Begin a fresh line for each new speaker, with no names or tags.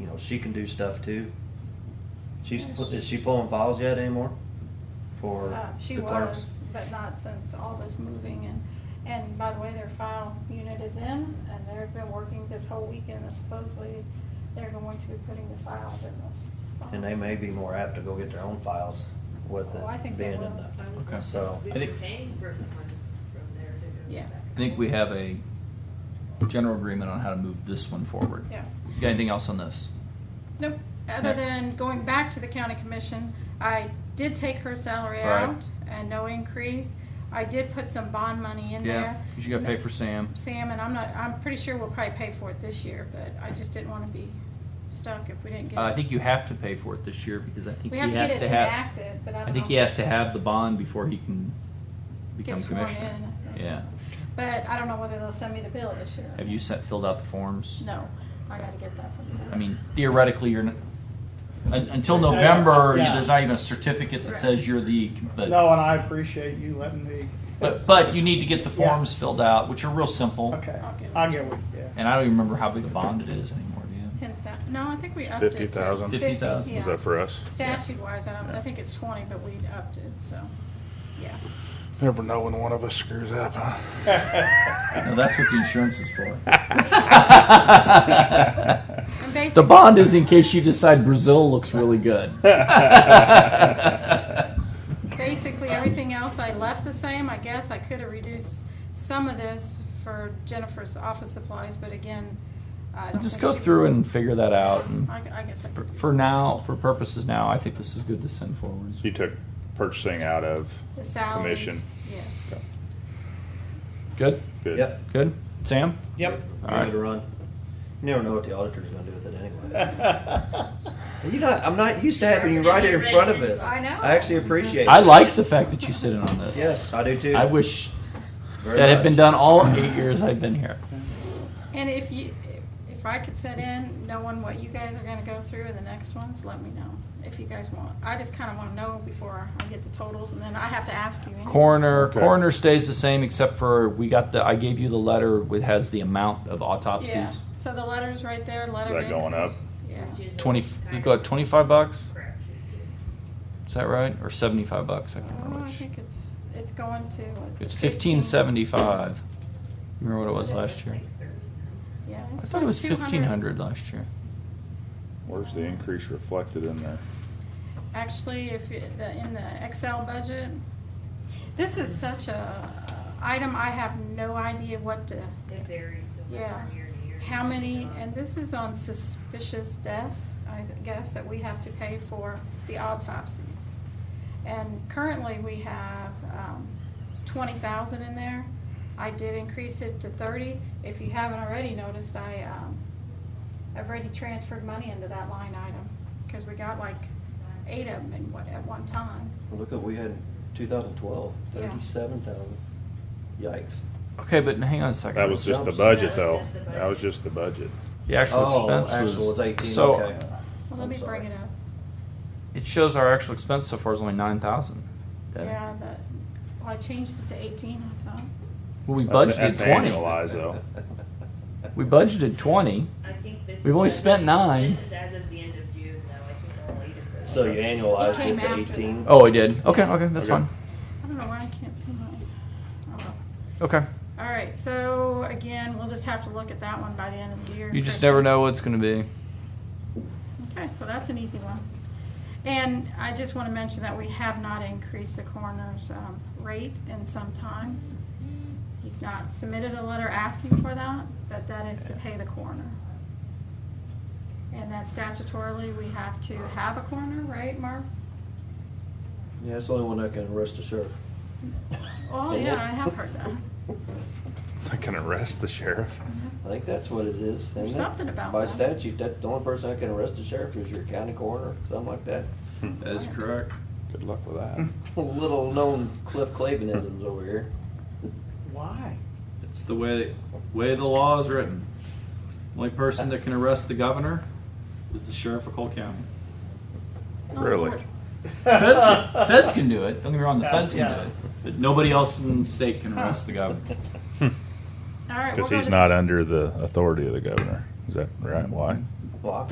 Well, she can do stuff too. She's,
Yes.
pu- is she pulling files yet anymore? For
Uh, She
the clerks?
was, but not since all this moving and, and by the way, their file unit is in and they've been working this whole weekend and supposedly they're going to be putting the files in those spots.
And they may be more apt to go get their own files with
Oh, I think
it
they
being in
will.
the,
I would
Okay.
think
So-
We've
I think-
been paying for someone from there to go
Yeah.
back.
I think we have a general agreement on how to move this one forward.
Yeah.
You Got anything else on this?
Nope, other
Next.
than going back to the county commission, I did take her salary
Right.
out and no increase. I did put some bond money in
Yeah,
there.
'cause you gotta pay for Sam.
Sam, and I'm not, I'm pretty sure we'll probably pay for it this year, but I just didn't wanna be stuck if we didn't get it.
Uh, I think you have to pay for it this year because I think
We
he
have to get
has
it
to have,
enacted, but I don't
I think
know
he
if-
has to have the bond before he can become
Get sworn
commissioner.
in.
Yeah.
But I don't know whether they'll send me the bill this year.
Have you sent, filled out the forms?
No, I gotta get that from
I
them.
mean, theoretically, you're, n- un- until
Yeah,
November, you-
yeah.
there's not even a certificate that
Right.
says you're the, but.
No, and I appreciate you letting me.
But, but you need to get the
Yeah.
forms filled out, which are real simple.
Okay,
I'll get
I
it.
get what, yeah.
And I don't even remember how big a bond it is anymore, do you?
Ten thou, no, I think we upped it. so
50,000?
50,000.
yeah.
Is that for us?
Statute wise, I don't, I think it's twenty, but we upped it, so, yeah.
Never know when one of us screws up, huh?
No, that's what the insurance is for.
And basically.
The bond is in case you decide Brazil looks really good.
Basically, everything else I left the same. I guess I could have reduced some of this for Jennifer's office supplies, but again, I don't
Just
think
go
she-
through and figure that out. And
I, I guess I
for,
could. do
for now, for purposes now, I think this is good to send forwards.
You took purchasing out of
The salaries,
commission.
Yes.
Good,
Good.
Yep.
good. Sam,
Yep.
All
Give
right.
it a run. You never know what the auditor's gonna do with it anyway. And You not, I'm not used to having you right here in front of us.
I know.
I actually appreciate it.
I like the fact that you sit in on this.
Yes, I do too.
I wish
Very
that had been
much.
done all eight years I've been here.
And if you, if I could set in, knowing what you guys are gonna go through in the next ones, let me know if you guys want. I just kinda wanna know before I get the totals and then I have to ask you. anyway.
Coroner,
Okay.
coroner stays the same except for we got the, I gave you the letter with has the amount of
Yeah,
autopsies.
so the letter's right there, letter.
that going up?
Yeah.
Which is a
Twenty,
kind
we
of
got twenty-five bucks,
correction
is that right? Or seventy-five bucks, I can't
Oh,
remember
I
which.
think it's, it's going to. what,
It's
15?
fifteen seventy-five. Remember what it was last year?
to thirteen.
Yeah.
I
it's
thought
like
it was
200.
fifteen hundred last year.
Where's the increase reflected in there?
Actually, if, it- the- in the Excel budget, this is such a item, I have no idea what to,
It varies so much
Yeah.
from year to year. Um,
how many, and this is on suspicious deaths, I guess, that we have to pay for the autopsies. And currently, we have um, twenty thousand in there. I did increase it to thirty. If you haven't already noticed, I, um, I've already transferred money into that line item, because we got like eight of them in, one- at one time.
Look at, we had two thousand twelve,
Yeah.
thirty-seven thousand. Yikes.
Okay, but hang on a second.
That was just the
Jumps.
budget,
That
though.
was just the
That was just the budget.
The actual
Oh,
expense
actual was
was,
18,
so,
okay.
Well,
I'm
let me
sorry.
bring it up.
it shows our actual expense so far is only nine thousand.
Yeah, that, well, I changed it to eighteen, I thought.
Well, we budgeted
That's- that's
twenty.
Annualized, though.
We budgeted twenty.
I think this.
We've only
is-
spent nine.
This is as of the end of June, though, I think all eight of those.
So you annualized
It came
it to
after
eighteen?
Oh, I did. Okay, okay, that's
Okay.
fine.
I don't know why I can't see my, oh, well.
Okay.
All right, so again, we'll just have to look at that one by the end of the year.
You just never know what it's going to be.
Okay, so that's an easy one. And I just want to mention that we have not increased the coroner's um, rate in some time. He's not submitted a letter asking for that, but that is to pay the coroner. And that statutorily, we have to have a coroner, right, Mark?
Yeah, it's the only one that can arrest a sheriff.
Oh, yeah, I have heard that.
I can arrest the sheriff.
I think that's what it is. isn't
There's
it?
something about
By
that.
statute, that, the only person that can arrest a sheriff is your county coroner, something like that.
That is correct.
Good luck with that.
Little known Cliff Clavinisms over here.
Why?
It's the way way the law is written. Only person that can arrest the governor is the sheriff of Cole County.
Oh,
Really?
Lord.
Feds, feds can do it. Don't get me wrong, the
Yeah,
feds can
yeah.
do it, but nobody else in the state can arrest the governor.
All right. we'll
Because
go
he's
to-
not under the authority of the governor. Is that right? Why?
Well, I